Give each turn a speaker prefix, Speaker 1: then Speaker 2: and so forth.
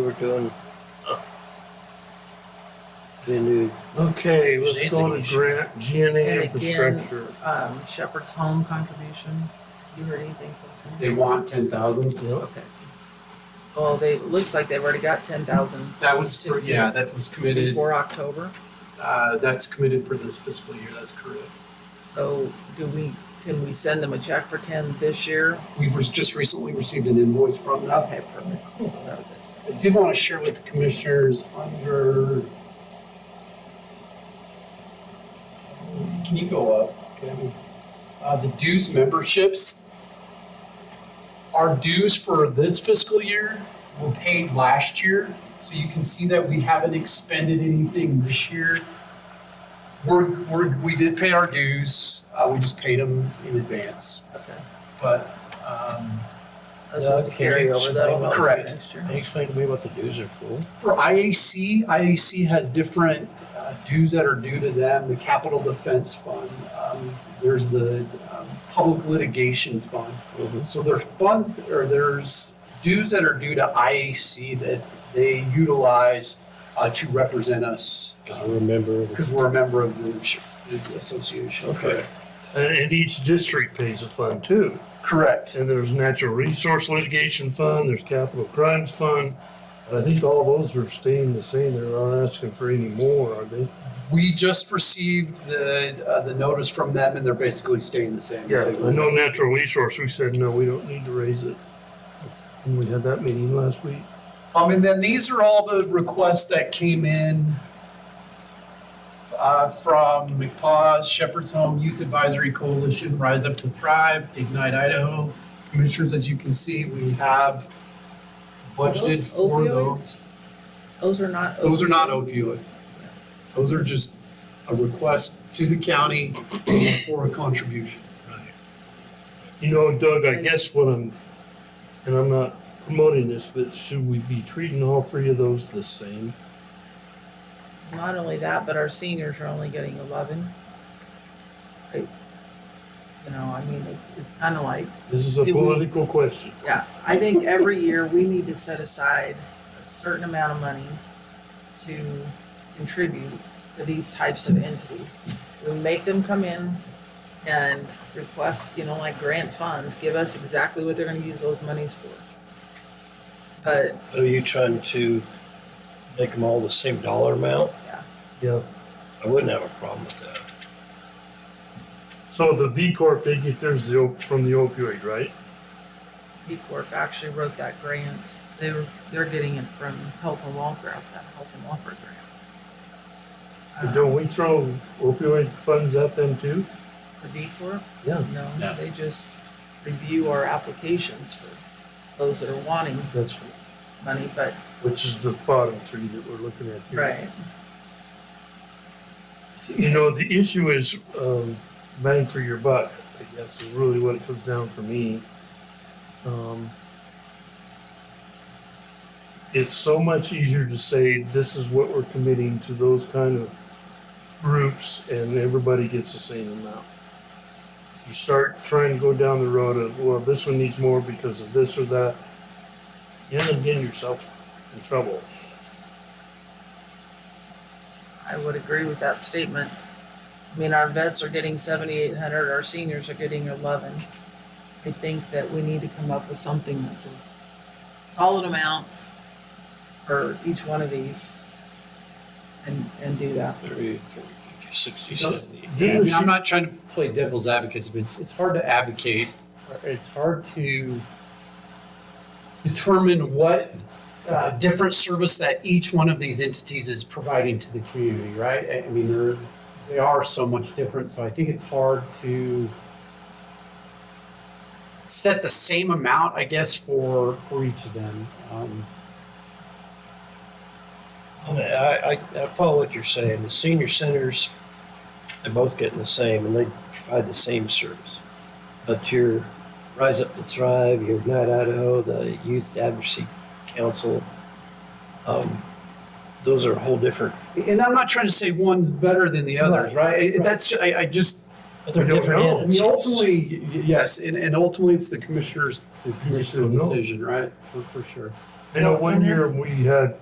Speaker 1: we're doing. The new,
Speaker 2: Okay, let's
Speaker 3: Anything
Speaker 2: go
Speaker 3: we
Speaker 2: to
Speaker 3: should-
Speaker 2: grant, GNA
Speaker 4: And again-
Speaker 2: infrastructure.
Speaker 4: Um, Shepherd's Home contribution, you heard anything from them?
Speaker 5: They want ten thousand.
Speaker 4: Okay. Well, they, it looks like they've already got ten thousand
Speaker 5: That was for, yeah, that was committed,
Speaker 4: before October,
Speaker 5: uh, that's committed for this fiscal year, that's correct.
Speaker 4: so do we, can we send them a check for ten this year?
Speaker 5: We were just recently received an invoice from them.
Speaker 4: Okay, perfect. So that would be-
Speaker 5: I did want to share with the commissioners under. Can you go up? Kevin? Uh, the dues memberships. Our dues for this fiscal year were paid last year, so you can see that we haven't expended anything this year. We're, we're, we did pay our dues, uh, we just paid them in advance,
Speaker 4: Okay.
Speaker 5: but, um,
Speaker 4: That's supposed to carry over that'll help for
Speaker 5: Correct.
Speaker 4: next year.
Speaker 1: can you explain to me what the dues are for?
Speaker 5: For IAC, IAC has different uh, dues that are due to them, the Capital Defense Fund. um, There's the um, Public Litigation Fund.
Speaker 1: mm-hmm,
Speaker 5: So there are funds, that- or there's dues that are due to IAC that they utilize uh, to represent us
Speaker 1: Cause we're a member of the
Speaker 5: because we're a member of the sh- the association.
Speaker 1: Okay.
Speaker 2: And, and each district pays a fund too.
Speaker 5: Correct.
Speaker 2: And there's natural resource litigation fund, there's capital crimes fund. I think all those are staying the same. They're not asking for any more, are they?
Speaker 5: We just received the, uh, the notice from them and they're basically staying the same.
Speaker 2: Yeah,
Speaker 5: They-
Speaker 2: I know natural resource, we said, no, we don't need to raise it. And we had that meeting last week.
Speaker 5: Um, and then these are all the requests that came in uh, from McPaws, Shepherd's Home, Youth Advisory Coalition, Rise Up to Thrive, Ignite Idaho. Commissioners, as you can see, we have budgeted
Speaker 4: those
Speaker 5: for
Speaker 4: opioid?
Speaker 5: those.
Speaker 4: Those are not.
Speaker 5: Those are not
Speaker 4: opioid.
Speaker 5: opioid. Those are just a request to the county for a contribution.
Speaker 2: You know, Doug, I guess what I'm, and I'm not promoting this, but should we be treating all three of those the same?
Speaker 4: Not only that, but our seniors are only getting eleven. I- You know, I mean, it's, it's kind of like,
Speaker 2: This is a
Speaker 4: Do we-
Speaker 2: political question.
Speaker 4: yeah, I think every year we need to set aside a certain amount of money to contribute to these types of entities. We make them come in and request, you know, like grant funds, give us exactly what they're gonna use those monies for. But
Speaker 1: Are you trying to make them all the same dollar amount?
Speaker 2: Yeah.
Speaker 1: I wouldn't have a problem with that.
Speaker 2: So the V Corp, they get theirs the op- from the opioid, right?
Speaker 4: B Corp actually wrote that grant. They were, they're getting it from Health and Welfare, that Health and Welfare grant. Uh-huh.
Speaker 2: But don't we throw opioid funds at them too?
Speaker 4: Uh, The B Corp?
Speaker 2: Yeah.
Speaker 5: No.
Speaker 4: No, they just review our applications for those that are wanting
Speaker 2: That's,
Speaker 4: money, but,
Speaker 2: which is the bottom three that we're looking at here.
Speaker 4: right,
Speaker 2: You know, the issue is um, bang for your buck, I guess, is really what it comes down for me. Um, it's so much easier to say this is what we're committing to those kind of groups, and everybody gets the same amount. If you start trying to go down the road of, well, this one needs more because of this or that, you end up getting yourself in trouble.
Speaker 4: I would agree with that statement. I mean, our vets are getting seventy-eight hundred, our seniors are getting eleven. I think that we need to come up with something that's a solid amount for each one of these and, and do that.
Speaker 1: Thirty, forty, fifty, sixty,
Speaker 5: Yes.
Speaker 1: seventy.
Speaker 5: Yeah, I mean, I'm not trying to play devil's advocate, but it's, it's hard to advocate. It's hard to determine what uh, different service that each one of these entities is providing to the community, right? I- I mean, they're, they are so much different, so I think it's hard to set the same amount, I guess, for for each of them. Um,
Speaker 1: I, mean, I, I I follow what you're saying. The senior centers, they're both getting the same, and they provide the same service. But your Rise Up to Thrive, your Ignite Idaho, the Youth Advocacy Council, um, those are a whole different.
Speaker 5: and I'm not trying to say one's better than the others, right? I-
Speaker 1: Right.
Speaker 5: That's I, I just
Speaker 1: But they're
Speaker 2: We don't
Speaker 1: different
Speaker 2: know.
Speaker 5: I mean,
Speaker 1: entities.
Speaker 5: ultimately, y- yes, and, and ultimately, it's the commissioner's, the
Speaker 2: commissioner
Speaker 5: commissioner's
Speaker 2: knows.
Speaker 5: decision, right? For, for sure.
Speaker 2: I know
Speaker 4: Well,
Speaker 2: one
Speaker 4: and
Speaker 2: year
Speaker 4: it's-
Speaker 2: we had